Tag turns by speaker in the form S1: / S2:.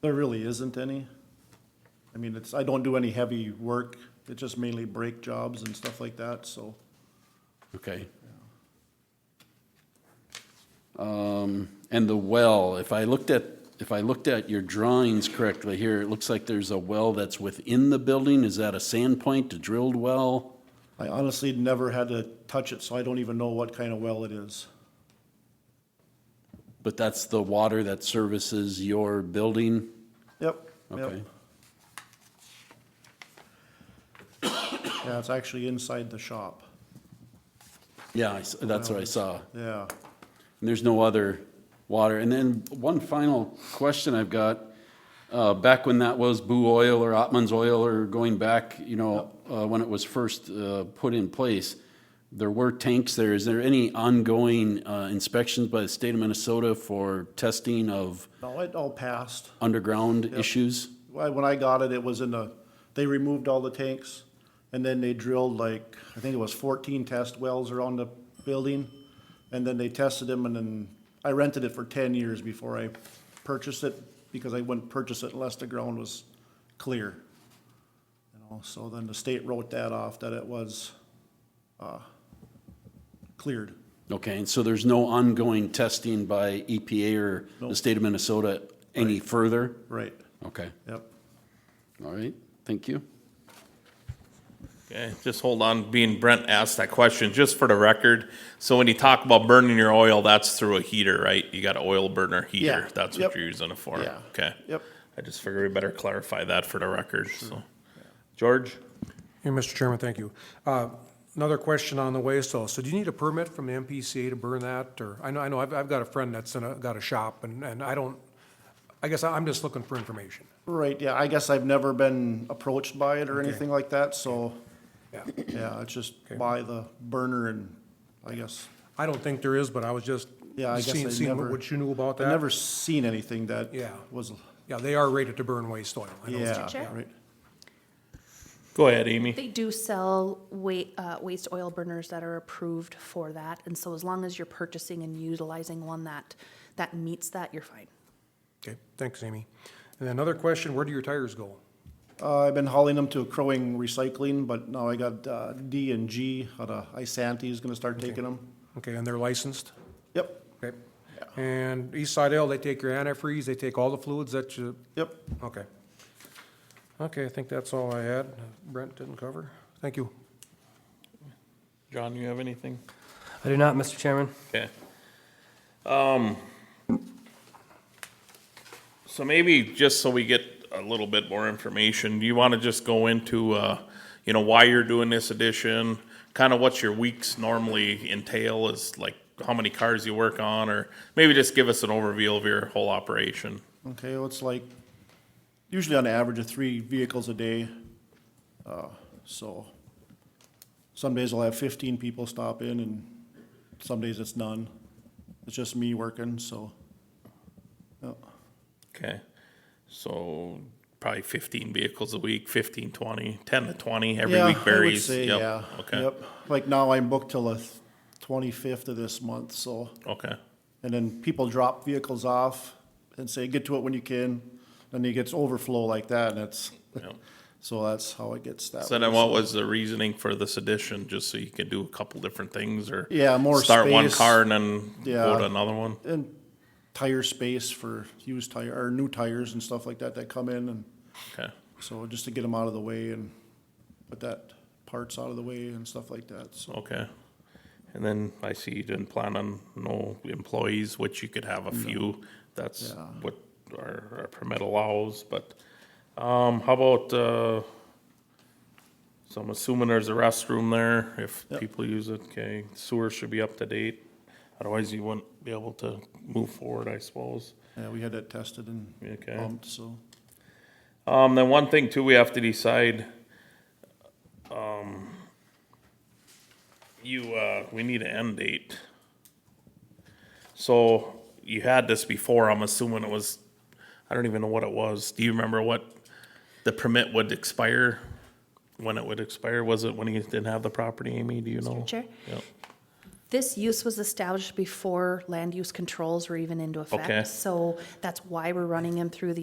S1: There really isn't any. I mean, it's, I don't do any heavy work. It's just mainly brake jobs and stuff like that, so.
S2: Okay. Um, and the well, if I looked at, if I looked at your drawings correctly here, it looks like there's a well that's within the building. Is that a sand point, a drilled well?
S1: I honestly never had to touch it, so I don't even know what kind of well it is.
S2: But that's the water that services your building?
S1: Yep,
S2: Okay.
S1: yep. Yeah, it's actually inside the shop.
S2: Yeah, I s- that's what I saw.
S1: Yeah.
S2: And there's no other water. And then one final question I've got, uh, back when that was Boo Oil or Ottman's Oil or going back, you know, uh, when it was first, uh, put in place, there were tanks there. Is there any ongoing, uh, inspections by the state of Minnesota for testing of
S1: No, it all passed.
S2: underground issues?
S1: Why- When I got it, it was in the, they removed all the tanks and then they drilled like, I think it was fourteen test wells around the building. And then they tested them and then I rented it for ten years before I purchased it because I wouldn't purchase it unless the ground was clear. You know, so then the state wrote that off that it was, uh, cleared.
S2: Okay, and so there's no ongoing testing by EPA or the state of Minnesota any further?
S1: Right,
S2: Okay,
S1: yep.
S2: all right, thank you.
S3: Okay, just hold on, being Brent asked that question, just for the record. So when you talk about burning your oil, that's through a heater, right? You got an oil burner heater,
S1: Yeah,
S3: that's
S1: yep.
S3: what you're using it for,
S1: Yeah,
S3: okay?
S1: yep.
S3: I just figured we better clarify that for the record, so. George?
S4: Yeah, Mr. Chairman, thank you. Uh, Another question on the waste oil. So do you need a permit from the MPCA to burn that, or, I know, I know, I've, I've got a friend that's in a, got a shop, and, and I don't, I guess I'm just looking for information.
S1: Right, yeah, I guess I've never been approached by it or anything like that, so.
S4: Yeah.
S1: Yeah, it's just
S4: Okay.
S1: by the burner and, I guess,
S4: I don't think there is, but I was just
S1: Yeah, I guess I
S4: seeing, seeing
S1: never-
S4: what- what you knew about
S1: I've
S4: that.
S1: never seen anything that
S4: Yeah.
S1: was,
S4: Yeah, they are rated to burn waste oil. I know it's-
S1: yeah,
S5: Chair?
S1: right.
S3: Go ahead, Amy.
S5: They do sell wa- uh, waste oil burners that are approved for that, and so as long as you're purchasing and utilizing one that, that meets that, you're fine.
S4: Okay, thanks, Amy. And another question, where do your tires go?
S1: Uh, I've been hauling them to Crowing Recycling, but now I got, uh, D and G out of Isanti is gonna start taking them.
S4: Okay, and they're licensed?
S1: Yep,
S4: Okay. And East Side L, they take your antifreeze, they take all the fluids that you,
S1: yep.
S4: Okay. Okay, I think that's all I had. Brent didn't cover. Thank you.
S3: John, you have anything?
S6: I do not, Mr. Chairman.
S3: Okay. Um, so maybe just so we get a little bit more information, do you want to just go into, uh, you know, why you're doing this addition? Kind of what your weeks normally entail is like how many cars you work on, or maybe just give us an overview of your whole operation.
S1: Okay, well, it's like, usually on average of three vehicles a day. Uh, So, some days I'll have fifteen people stop in and some days it's none. It's just me working, so,
S3: Okay. So probably fifteen vehicles a week, 15, 20, 10 to twenty, every
S1: Yeah,
S3: week
S1: I would
S3: varies.
S1: say,
S3: Yep.
S1: yeah.
S3: Okay,
S1: Yep. Like now I'm booked till the twenty-fifth of this month, so,
S3: okay.
S1: and then people drop vehicles off and say, get to it when you can. Then it gets overflow like that and it's,
S3: Yep.
S1: so that's how it gets that.
S3: So
S1: way.
S3: then what was the reasoning for this addition, just so you could do a couple different things or?
S1: Yeah, more
S3: Start one
S1: space.
S3: car and then go
S1: Yeah.
S3: to another one?
S1: And tire space for used tire, or new tires and stuff like that that come in and
S3: Okay,
S1: so just to get them out of the way and put that parts out of the way and stuff like that, so.
S3: okay. And then I see you didn't plan on no employees, which you could have a few. That's
S1: Yeah.
S3: what our, our permit allows, but, um, how about, uh, so I'm assuming there's a restroom there if
S1: Yep.
S3: people use it, okay? Sewer should be up to date. Otherwise you wouldn't be able to move forward, I suppose.
S1: Yeah, we had that tested and
S3: Okay.
S1: pumped, so.
S3: Um, then one thing too, we have to decide, um, you, uh, we need an end date. So you had this before, I'm assuming it was, I don't even know what it was. Do you remember what the permit would expire? When it would expire? Was it when he didn't have the property, Amy? Do you know?
S5: Chair?
S3: Yep.
S5: This use was established before land use controls were even into
S3: Okay.
S5: effect, so that's why we're running him through the